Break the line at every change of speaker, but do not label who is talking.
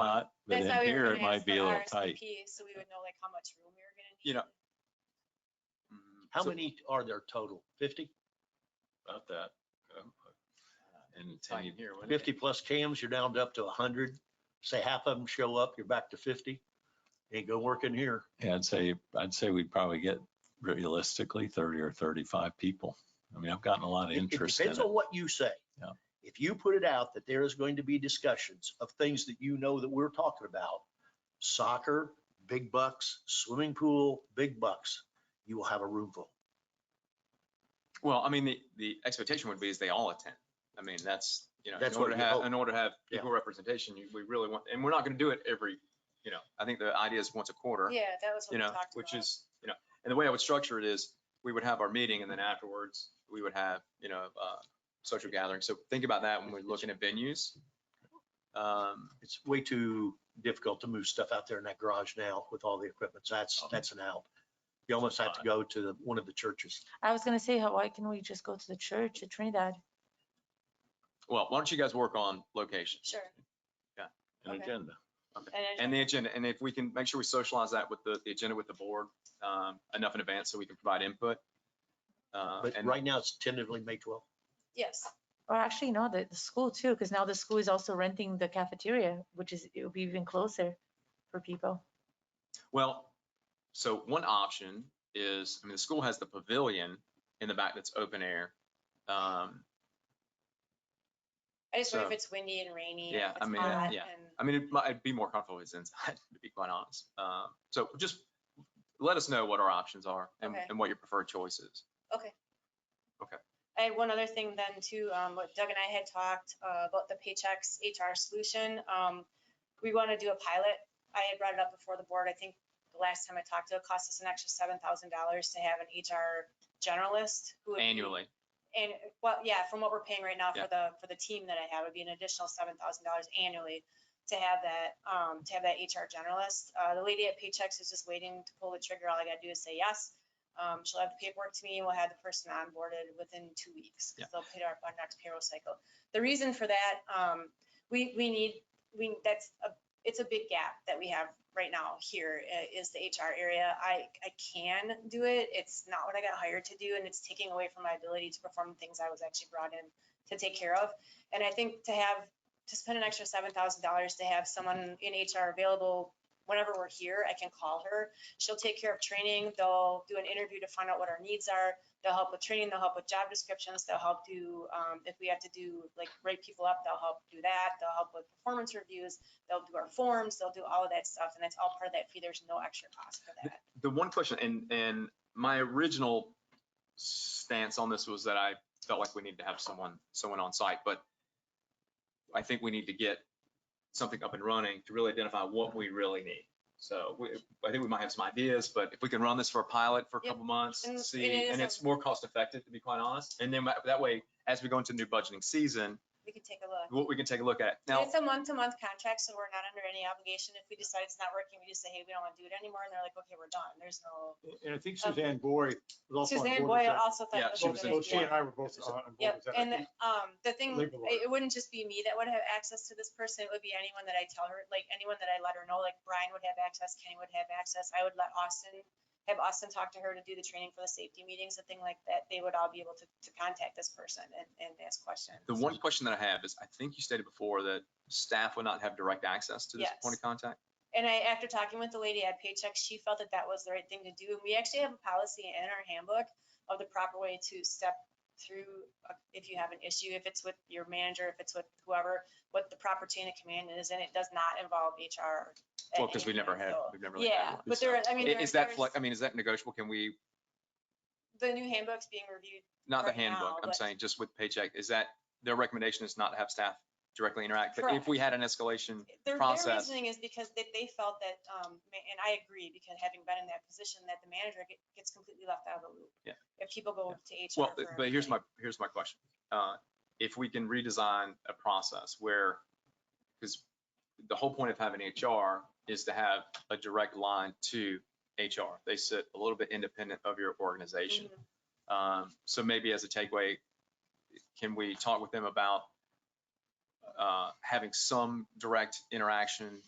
lot, but
That's
in
why we were
here, it
gonna ask
might be
for
a little tight.
RSVP, So we would know like how much room we were gonna need.
You know,
How
So-
many are there total? Fifty?
About that. um, And, and you-
Fifty plus cams, you're down to up to hundred. Say half of them show up, you're back to fifty. Ain't gonna work in here.
yeah, I'd say, I'd say we'd probably get realistically thirty or thirty-five people. I mean, I've gotten a lot of
It-
interest
It
in it.
depends on what you say.
Yeah.
If you put it out that there is going to be discussions of things that you know that we're talking about, soccer, big bucks, swimming pool, big bucks, you will have a room full.
Well, I mean, the, the expectation would be is they all attend. I mean, that's, you know, in
That's what
order to
we
have,
hope.
in order to have
Yeah.
equal representation, you- we really want, and we're not gonna do it every, you know, I think the idea is once a quarter,
Yeah, that was what
you
we
know,
talked about.
which is, you know, and the way I would structure it is, we would have our meeting and then afterwards, we would have, you know, uh, social gathering. So think about that when we're looking at venues. Um,
It's way too difficult to move stuff out there in that garage now with all the equipment. So
Oh.
that's, that's an out. You almost have to go to the- one of the churches.
I was gonna say, how- why can we just go to the church at Trinidad?
Well, why don't you guys work on location
Sure.
An
Okay.
agenda.
And
and the agenda? And if we can make sure we socialize that with the, the agenda with the board, um, enough in advance so we can provide input. Uh,
But
and-
right now it's tentatively May twelfth.
yes,
Or actually, no, the, the school too, because now the school is also renting the cafeteria, which is, it would be even closer for people.
Well, so one option is, I mean, the school has the pavilion in the back that's open air. Um,
I just wonder if
So-
it's windy and rainy.
Yeah,
and if
I
it's
mean,
hot
yeah.
and-
I mean, it might, I'd be more comfortable if it's inside, to be quite honest. Um, so just let us know what our options are and,
Okay.
and what your preferred choice is.
I had one other thing then too, um, what Doug and I had talked uh, about the Paychex HR solution. Um, we want to do a pilot. I had brought it up before the board. I think the last time I talked to it, it cost us an extra seven thousand dollars to have an HR generalist who would be-
Annually,
And, well, yeah, from what we're paying right now
Yeah.
for the, for the team that I have, it'd be an additional seven thousand dollars annually to have that, um, to have that HR generalist. Uh, the lady at Paychex is just waiting to pull the trigger. All I gotta do is say yes. Um, she'll have the paperwork to me and we'll have the person onboarded within two weeks.
Yeah.
because They'll pay our, our next payroll cycle. The reason for that, um, we, we need, we, that's a, it's a big gap that we have right now here uh, is the HR area. I, I can do it. It's not what I got hired to do and it's taking away from my ability to perform the things I was actually brought in to take care of. And I think to have, to spend an extra seven thousand dollars to have someone in HR available whenever we're here, I can call her. She'll take care of training. They'll do an interview to find out what our needs are. They'll help with training. They'll help with job descriptions. They'll help do, um, if we have to do, like, rate people up, they'll help do that. They'll help with performance reviews. They'll do our forms. They'll do all of that stuff. And that's all part of that fee. There's no extra cost for that.
the one question, and, and my original stance on this was that I felt like we needed to have someone, someone on site, but I think we need to get something up and running to really identify what we really need. So we, I think we might have some ideas, but if we can run this for a pilot for a
Yep.
couple months,
And- and
see,
it is
and
a-
it's more cost effective, to be quite honest. And then that- that way, as we go into new budgeting season,
We can take a look.
what we can take a look at.
And
Now,
It's a month-to-month contract, so we're not under any obligation. If we decide it's not working, we just say, hey, we don't want to do it anymore. And they're like, okay, we're done. There's no.
And I think
Okay.
Suzanne Bory was also on
Suzanne
board with
Boyle
that.
also thought.
Yeah,
it was
she
a
was
good
in.
Both she
idea.
and I were both on on board
Yep,
with that. I
and
think
um, the thing,
labor law.
it it wouldn't just be me that would have access to this person, it would be anyone that I tell her, like, anyone that I let her know, like Brian would have access, Kenny would have access, I would let Austin, have Austin talk to her to do the training for the safety meetings, a thing like that, they would all be able to, to contact this person and, and ask questions.
the one question that I have is, I think you stated before that staff would not have direct access to this point of contact.
And I, after talking with the lady at Paycheck, she felt that that was the right thing to do. And we actually have a policy in our handbook of the proper way to step through uh, if you have an issue, if it's with your manager, if it's with whoever, what the proper chain of command is, and it does not involve HR. at
Well, because we
any
never
point,
had,
so-
we've never. really had
Yeah,
one,
but
so.
there, I mean.
I-
there-
Is that,
there's-
flex- I mean, is that negotiable? Can we,
The new handbook's being reviewed.
not the
Right now,
handbook, I'm
but-
saying just with paycheck, is that, their recommendation is not to have staff directly interact? But if we had an escalation,
Their, their
Process.
reasoning is because they, they felt that, um, ma- and I agree, because having been in that position, that the manager get- gets completely left out of the loop.
Yeah.
If people go to HR.
well,
for
but here's
everything.
my, here's my question. Uh, If we can redesign a process where, because the whole point of having HR is to have a direct line to HR. They sit a little bit independent of your organization.
Mhm.
Um, So maybe as a takeaway, can we talk with them about uh, having some direct interaction